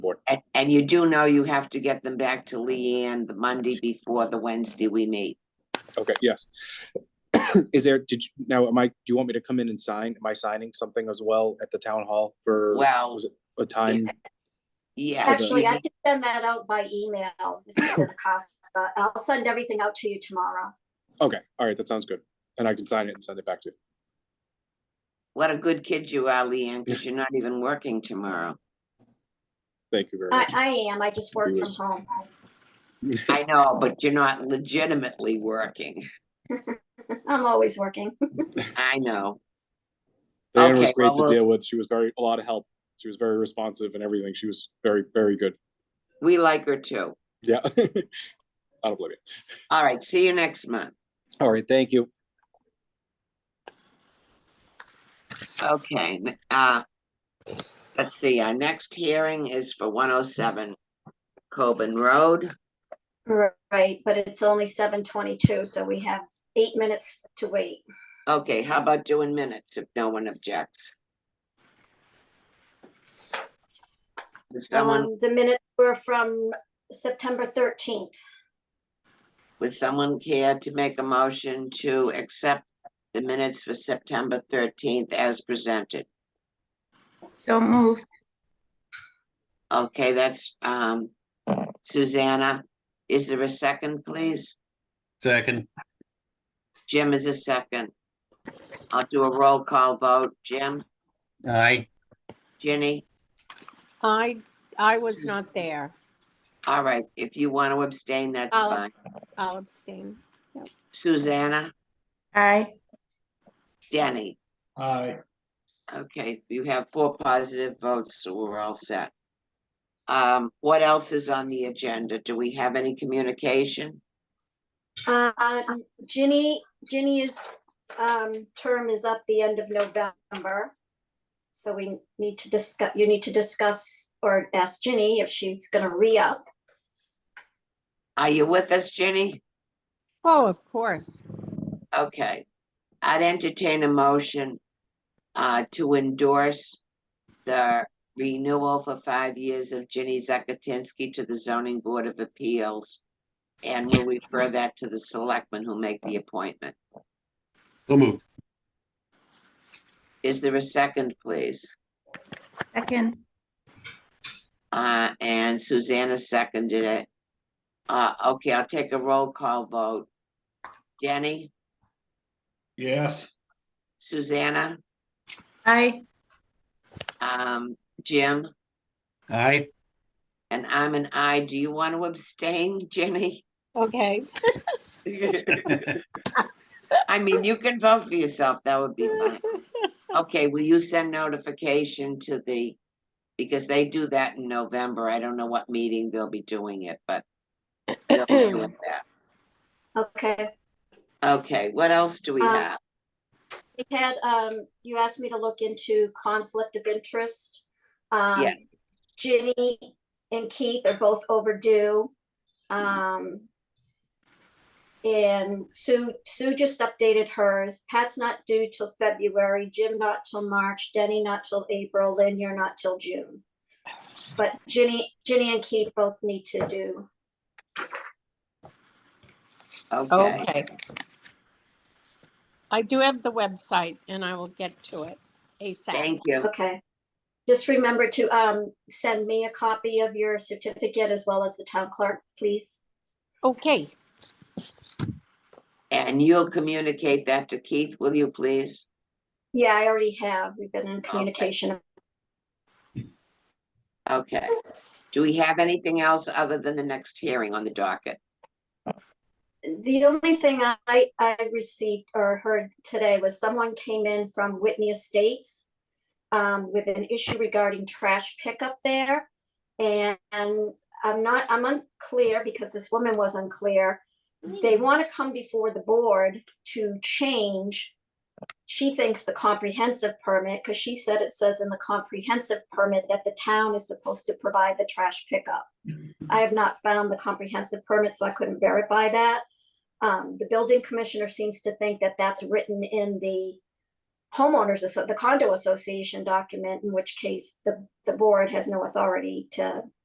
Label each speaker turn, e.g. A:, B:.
A: board.
B: And, and you do know you have to get them back to Leanne the Monday before the Wednesday we meet.
A: Okay, yes. Is there, did you, now, am I, do you want me to come in and sign? Am I signing something as well at the town hall for
B: Well,
A: was a time?
B: yeah,
C: Actually, I can send that out by email, Mr. DeCosta. I'll send everything out to you tomorrow.
A: Okay, all right, that sounds good. And I can sign it and send it back to you.
B: what a good kid you are, Leanne, because you're not even working tomorrow.
A: Thank you
B: Uh,
A: very
C: I,
A: much.
C: I am, I just work from
A: Yes.
C: home.
B: I know, but you're not legitimately working.
C: I'm always working.
B: I know.
A: Diana was
B: okay,
A: great
B: well,
A: to
B: we'll-
A: deal with. She was very, a lot of help. She was very responsive and everything. She was very, very good.
B: We like her too.
A: Yeah. I don't blame you.
B: All right, see you next month.
A: All right, thank you.
B: Okay, n- uh, let's see, our next hearing is for one oh seven Coben Road.
C: Right, but it's only seven twenty-two, so we have eight minutes to wait.
B: Okay, how about doing minutes if no one objects? Would someone,
C: Um, the minutes were from September thirteenth.
B: would someone care to make a motion to accept the minutes for September thirteenth as presented?
D: So moved.
B: Okay, that's, um, Susanna. Is there a second, please?
E: Second,
B: Jim is a second. I'll do a roll call vote. Jim,
E: aye,
B: Ginny?
F: I, I was not there.
B: All right, if you want to abstain, that's
F: I'll-
B: fine.
F: I'll abstain.
B: Susanna,
D: Aye.
B: Denny.
G: Aye.
B: Okay, you have four positive votes, so we're all set. Um, what else is on the agenda? Do we have any communication?
C: Uh, Ginny, Ginny's, um, term is up the end of November. So we need to discuss, you need to discuss or ask Ginny if she's gonna re-up.
B: Are you with us, Ginny?
F: Oh, of course.
B: Okay. I'd entertain a motion uh, to endorse the renewal for five years of Ginny Zakatinsky to the zoning board of appeals. And we'll refer that to the selectmen who make the appointment.
E: so moved,
B: Is there a second, please?
D: Second.
B: Uh, and Susanna seconded it. Uh, okay, I'll take a roll call vote. Denny,
G: Yes.
B: Susanna,
D: Aye.
B: um, Jim,
E: aye,
B: and I'm an I. Do you want to abstain, Jenny?
F: Okay.
B: I mean, you can vote for yourself. That would be fine. Okay, will you send notification to the, because they do that in November. I don't know what meeting they'll be doing it, but they'll be doing that.
C: Okay,
B: Okay, what else do we
C: Um,
B: have?
C: we had, um, you asked me to look into conflict of interest. Um,
B: Yes.
C: Ginny and Keith are both overdue. Um, and Sue, Sue just updated hers. Pat's not due till February, Jim not till March, Denny not till April, Lynn, you're not till June. But Ginny, Ginny and Keith both need to do.
B: Okay.
F: Okay. I do have the website and I will get to it ASAP.
B: Thank you.
C: Okay. Just remember to, um, send me a copy of your certificate as well as the town clerk, please.
F: Okay,
B: And you'll communicate that to Keith, will you please?
C: Yeah, I already have. We've been in communication.
B: Okay. Do we have anything else other than the next hearing on the docket?
C: The only thing I, I received or heard today was someone came in from Whitney Estates um, with an issue regarding trash pickup there. And and I'm not, I'm unclear because this woman was unclear. They want to come before the board to change. She thinks the comprehensive permit, because she said it says in the comprehensive permit that the town is supposed to provide the trash pickup. I have not found the comprehensive permit, so I couldn't verify that. Um, the building commissioner seems to think that that's written in the homeowners, asso- the condo association document, in which case the, the board has no authority to